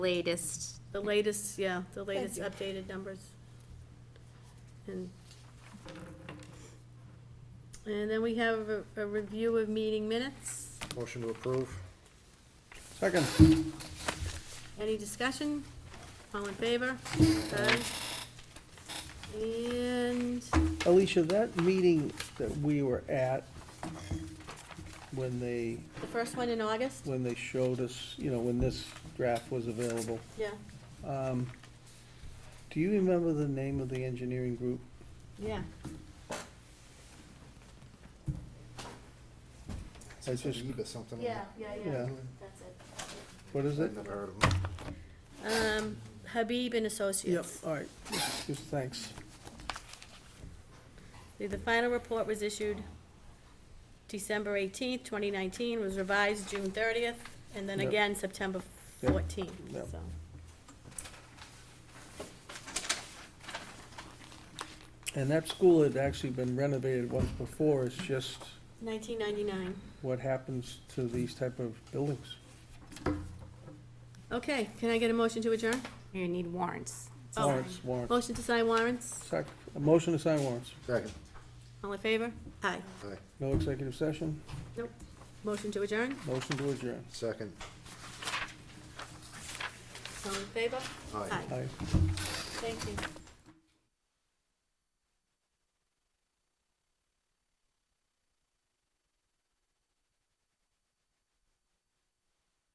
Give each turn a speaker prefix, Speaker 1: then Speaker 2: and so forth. Speaker 1: latest.
Speaker 2: The latest, yeah, the latest
Speaker 3: you.
Speaker 2: updated numbers. And, and then we have a, a review of meeting minutes.
Speaker 4: Motion to approve.
Speaker 5: Second.
Speaker 2: Any discussion? All in favor? Aye. And,
Speaker 5: Alicia, that meeting that we were at, when they,
Speaker 2: the first one in August?
Speaker 5: when they showed us, you know, when this draft was available,
Speaker 2: Yeah,
Speaker 5: um, do you remember the name of the engineering group?
Speaker 2: yeah.
Speaker 5: I just-
Speaker 4: Eve or something.
Speaker 2: yeah,
Speaker 5: Yeah.
Speaker 2: that's it.
Speaker 5: What is it?
Speaker 4: I've never heard of them.
Speaker 2: Um, Habib and
Speaker 5: Yep,
Speaker 2: Associates.
Speaker 5: all right, just thanks.
Speaker 2: The- The final report was issued December eighteenth, twenty nineteen, was revised June thirtieth, and then
Speaker 5: Yep.
Speaker 2: again September
Speaker 5: Yep.
Speaker 2: fourteenth,
Speaker 5: Yep.
Speaker 2: so.
Speaker 5: And that school had actually been renovated once before, it's just
Speaker 2: Nineteen ninety-nine.
Speaker 5: what happens to these type of buildings.
Speaker 2: Okay, can I get a motion to adjourn?
Speaker 1: You need warrants.
Speaker 2: Oh.
Speaker 5: Warrants, warrants.
Speaker 2: Motion to sign warrants?
Speaker 5: Sec, a motion to sign warrants.
Speaker 4: Second.
Speaker 2: All in favor? Aye.
Speaker 4: Aye.
Speaker 5: No executive session,
Speaker 2: Nope. Motion to adjourn?
Speaker 5: motion to adjourn.
Speaker 4: Second.
Speaker 2: All in favor?
Speaker 4: Aye.
Speaker 5: Aye.
Speaker 2: Thank you.